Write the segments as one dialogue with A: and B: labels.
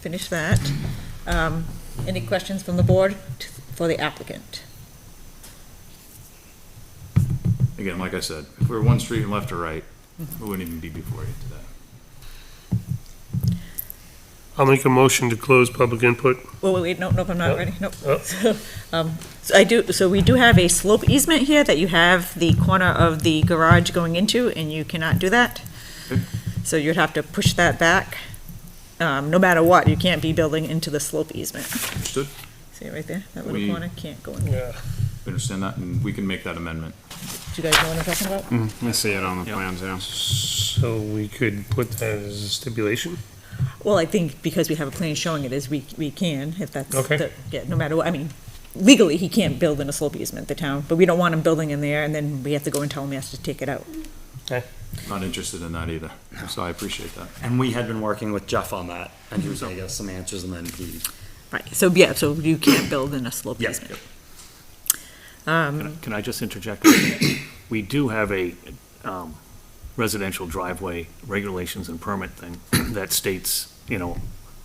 A: finish that. Um, Any questions from the board t- for the applicant?
B: Again, like I said, if we were one street and left or right, we wouldn't even be before you today.
C: I'll make a motion to close public input.
A: Well, wait, wait, no, no, I'm not
C: Nope.
A: ready, nope.
C: Nope.
A: So, um, so I do, so we do have a slope easement here that you have the corner of the garage going into, and you cannot do that.
B: Okay.
A: So you'd have to push that back. Um, no matter what, you can't be building into the slope easement.
B: Understood?
A: See it right there? That little
B: We-
A: corner can't go in. Do
C: Yeah.
B: We Understand that, and we can make that amendment.
A: you guys know what I'm talking about?
D: I see it on the
B: Yep.
D: plans, yeah.
C: So we could put that as a stipulation?
A: Well, I think because we have a plan showing it is, we, we can, if that's.
C: Okay.
A: the- Yeah, no matter what, I mean, legally, he can't build in a slope easement, the town, but we don't want him building in there, and then we have to go and tell him he has to take it out.
B: Not interested in that either, so I appreciate that.
E: And we had been working with Jeff on that, and he was gonna give us some answers, and then he,
A: Right, so, yeah, so you can't build in a slope
E: yes,
A: easement. Um,
F: Can I- Can I just interject? We do have a um, residential driveway regulations and permit thing that states, you know,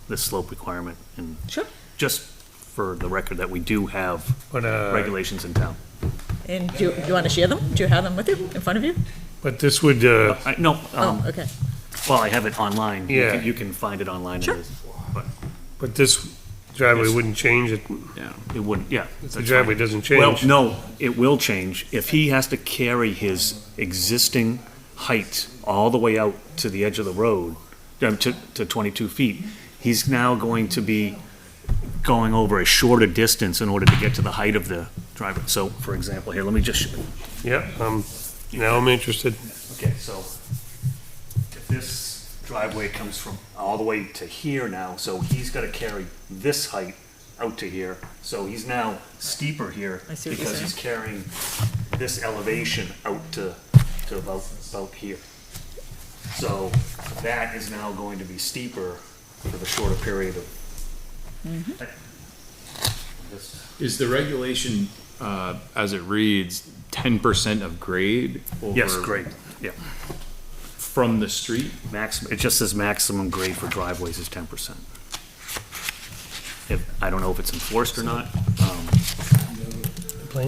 F: the slope requirement, and
A: Sure.
F: just for the record, that we do have
C: But, uh,
F: regulations in town.
A: And do you, do you want to share them? Do you have them with you, in front of you?
C: but this would, uh,
F: I- No,
A: Oh,
F: um,
A: okay.
F: well, I have it online. You can-
C: Yeah.
F: You can find it online. It
A: Sure.
F: is- But
C: but this driveway wouldn't change it.
F: it wouldn't, yeah. that's
C: The
F: fine.
C: driveway doesn't
F: Well,
C: change.
F: no, it will change. If he has to carry his existing height all the way out to the edge of the road, um, to, to 22 feet, he's now going to be going over a shorter distance in order to get to the height of the driveway. So, for example, here, let me just,
C: Yeah, um, now I'm interested.
F: okay, so if this driveway comes from all the way to here now, so he's got to carry this height out to here, so he's now steeper here
A: I see what you're
F: because he's carrying this elevation out to, to about, about here. So that is now going to be steeper for the shorter period of.
A: Mm-hmm.
F: This-
B: Is the regulation, uh, as it reads, ten percent of grade?
F: Yes,
B: over-
F: great, yeah.
B: From the street?
F: Maximum, it just says maximum grade for driveways is ten percent. If, I don't know if it's enforced or not, um,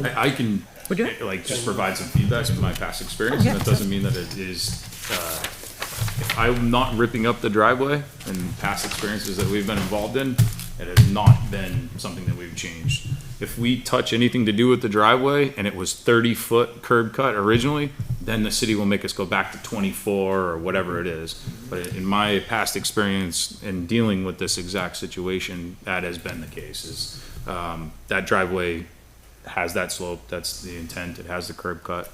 B: I, I can,
A: Would you?
B: eh, like, just provide some feedback from my past experience,
A: Yeah,
B: and that doesn't mean that it is, uh, if I'm not ripping up the driveway and past experiences that we've been involved in, it has not been something that we've changed. If we touch anything to do with the driveway and it was thirty foot curb cut originally, then the city will make us go back to twenty-four or whatever it is. But in my past experience in dealing with this exact situation, that has been the case, is, um, that driveway has that slope, that's the intent, it has the curb cut.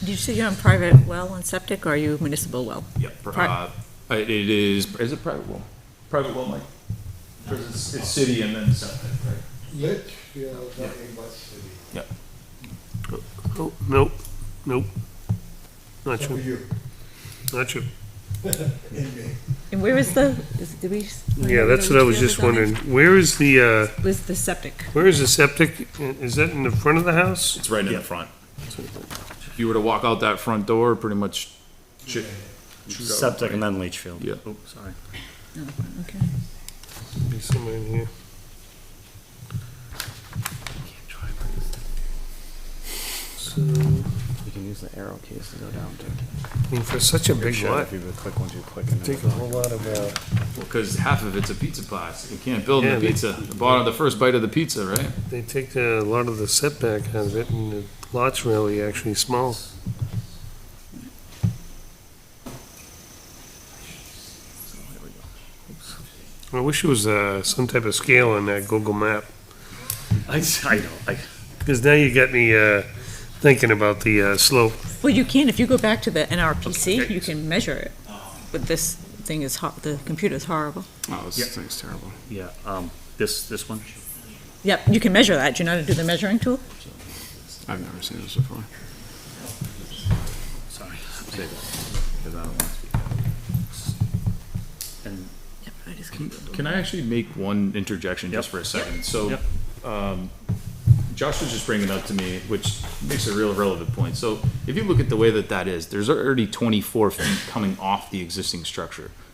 A: Did you say you're on private well and septic, or are you municipal well?
B: Yep.
A: Pri-
B: Uh, it is, is it private well? Private well, Mike? Or is it- it's city and then septic, right?
G: Litchfield, not in West City.
C: Oh, Nope, nope. Not
G: For
C: you,
G: you
C: not you.
G: and me.
A: And where is the, is, did we? s-
C: Yeah, that's what I was just wondering. Where is the, uh,
A: Was the septic?
C: where is the septic? Is that in the front of the house?
B: It's right in the front. If you were to walk out that front door, pretty much. shoot- shoot out,
E: septic and
B: right?
E: then Leachfield.
B: Yeah.
F: oh, sorry.
A: Okay.
C: Be somewhere in here. So,
E: You can use the arrow keys to go down to.
C: I mean, for such a big lot,
D: If you would click once you click and
C: take a whole lot of, uh,
B: Well, cause half of it's a pizza pie, so you can't build in
C: Yeah,
B: a
C: they-
B: pizza, the bottom, the first bite of the pizza, right?
C: They take a lot of the setback out of it, and the lot's really actually small. I wish it was uh, some type of scale on that Google map,
F: I, I know, I,
C: because now you got me uh, thinking about the uh, slope.
A: Well, you can, if you go back to the NRPC,
C: Okay.
A: you can measure it, but this thing is hot, the computer's horrible.
D: Oh,
F: Yeah.
D: this thing's terrible.
F: yeah, um, this, this one?
A: Yep, you can measure that, do you know how to do the measuring tool?
D: I've never seen this before.
F: Sorry. Say that, because I don't want to speak. And
A: Yep, I just
B: Can- Can I actually make one interjection just
F: Yep.
B: for a second? So,
F: Yep.
B: um, Josh was just bringing it up to me, which makes a real relevant point. So if you look at the way that that is, there's already twenty-four feet coming off the existing structure.